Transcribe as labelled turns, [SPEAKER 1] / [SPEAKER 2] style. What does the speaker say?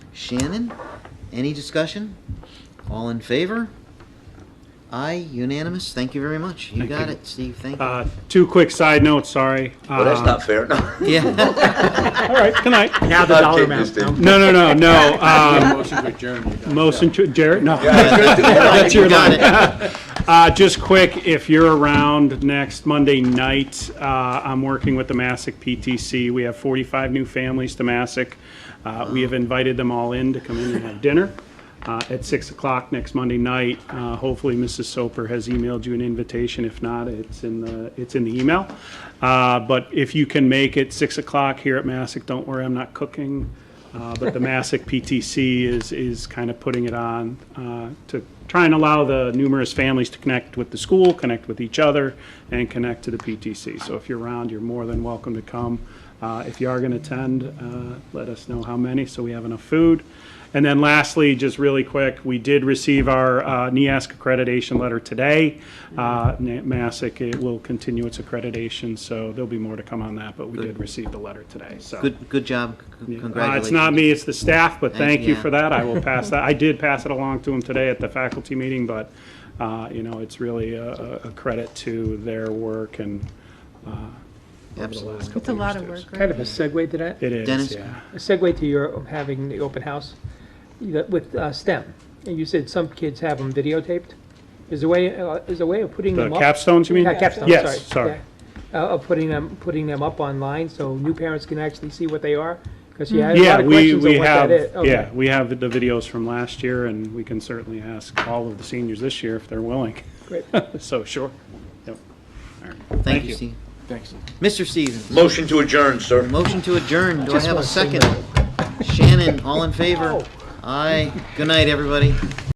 [SPEAKER 1] Shannon. Any discussion? All in favor? Aye, unanimous. Thank you very much. You
[SPEAKER 2] Thank
[SPEAKER 1] got
[SPEAKER 2] you.
[SPEAKER 1] it, Steve. Thank you.
[SPEAKER 2] Uh, Two quick side notes, sorry.
[SPEAKER 3] Well, that's
[SPEAKER 2] Uh,
[SPEAKER 3] not fair. No.
[SPEAKER 1] Yeah.
[SPEAKER 2] All right, good night.
[SPEAKER 4] Now the
[SPEAKER 3] I'll
[SPEAKER 4] dollar
[SPEAKER 3] take
[SPEAKER 4] amount.
[SPEAKER 3] this then.
[SPEAKER 4] no?
[SPEAKER 2] No, no, no, no. um,
[SPEAKER 5] Motion to adjourn. you guys.
[SPEAKER 2] Motion to, Jared, no.
[SPEAKER 1] That's
[SPEAKER 2] your
[SPEAKER 1] Got it.
[SPEAKER 2] Uh, just quick, if you're around next Monday night, uh, I'm working with the Massac PTC. We have 45 new families to Massac. Uh, we have invited them all in to come in and have dinner uh, at 6 o'clock next Monday night. Uh, hopefully, Mrs. Soper has emailed you an invitation. If not, it's in the, it's in the email. Uh, but if you can make it 6 o'clock here at Massac, don't worry, I'm not cooking. Uh, But the Massac PTC is, is kind of putting it on uh, to try and allow the numerous families to connect with the school, connect with each other, and connect to the PTC. So if you're around, you're more than welcome to come. Uh, If you are going to attend, uh, let us know how many, so we have enough food. And then lastly, just really quick, we did receive our uh, NEASC accreditation letter today. Uh, Na- Massac it will continue its accreditation, so there'll be more to come on that, but we did receive the letter today, so.
[SPEAKER 1] Good, good job. C-
[SPEAKER 2] Uh,
[SPEAKER 1] Congratulations.
[SPEAKER 2] It's not me, it's the staff, but
[SPEAKER 1] Thank-
[SPEAKER 2] thank you
[SPEAKER 1] yeah.
[SPEAKER 2] for that. I will pass that. I did pass it along to them today at the faculty meeting, but, uh, you know, it's really a- a a credit to their work and
[SPEAKER 1] Absolutely.
[SPEAKER 2] couple
[SPEAKER 6] It's a lot of
[SPEAKER 2] years,
[SPEAKER 6] work,
[SPEAKER 2] too.
[SPEAKER 6] right?
[SPEAKER 4] Kind of a segue to that.
[SPEAKER 2] it is,
[SPEAKER 1] Dennis?
[SPEAKER 2] yeah.
[SPEAKER 4] A segue to your having the open house the- with uh, STEM. And you said some kids have them videotaped. Is there a way, uh, is there a way of putting
[SPEAKER 2] The
[SPEAKER 4] them up?
[SPEAKER 2] capstones, you mean?
[SPEAKER 4] Not capstone, sorry.
[SPEAKER 2] Yes, sorry.
[SPEAKER 4] yeah. Uh, Of putting them, putting them up online so new parents can actually see what they are? Because you had a lot
[SPEAKER 2] Yeah,
[SPEAKER 4] of
[SPEAKER 2] we,
[SPEAKER 4] questions
[SPEAKER 2] we
[SPEAKER 4] on what that
[SPEAKER 2] have,
[SPEAKER 4] is. Okay.
[SPEAKER 2] yeah, we have the videos from last year, and we can certainly ask all of the seniors this year if they're willing.
[SPEAKER 4] Great.
[SPEAKER 2] So, sure.
[SPEAKER 1] Thank you,
[SPEAKER 2] you.
[SPEAKER 1] Steve.
[SPEAKER 5] Thanks.
[SPEAKER 1] Mr. Stevens,
[SPEAKER 3] Motion to adjourn, sir.
[SPEAKER 1] motion to adjourn. Do I
[SPEAKER 4] Just
[SPEAKER 1] have a
[SPEAKER 4] wanna say Oh.
[SPEAKER 1] second? Shannon, all in favor? Aye. Good night, everybody.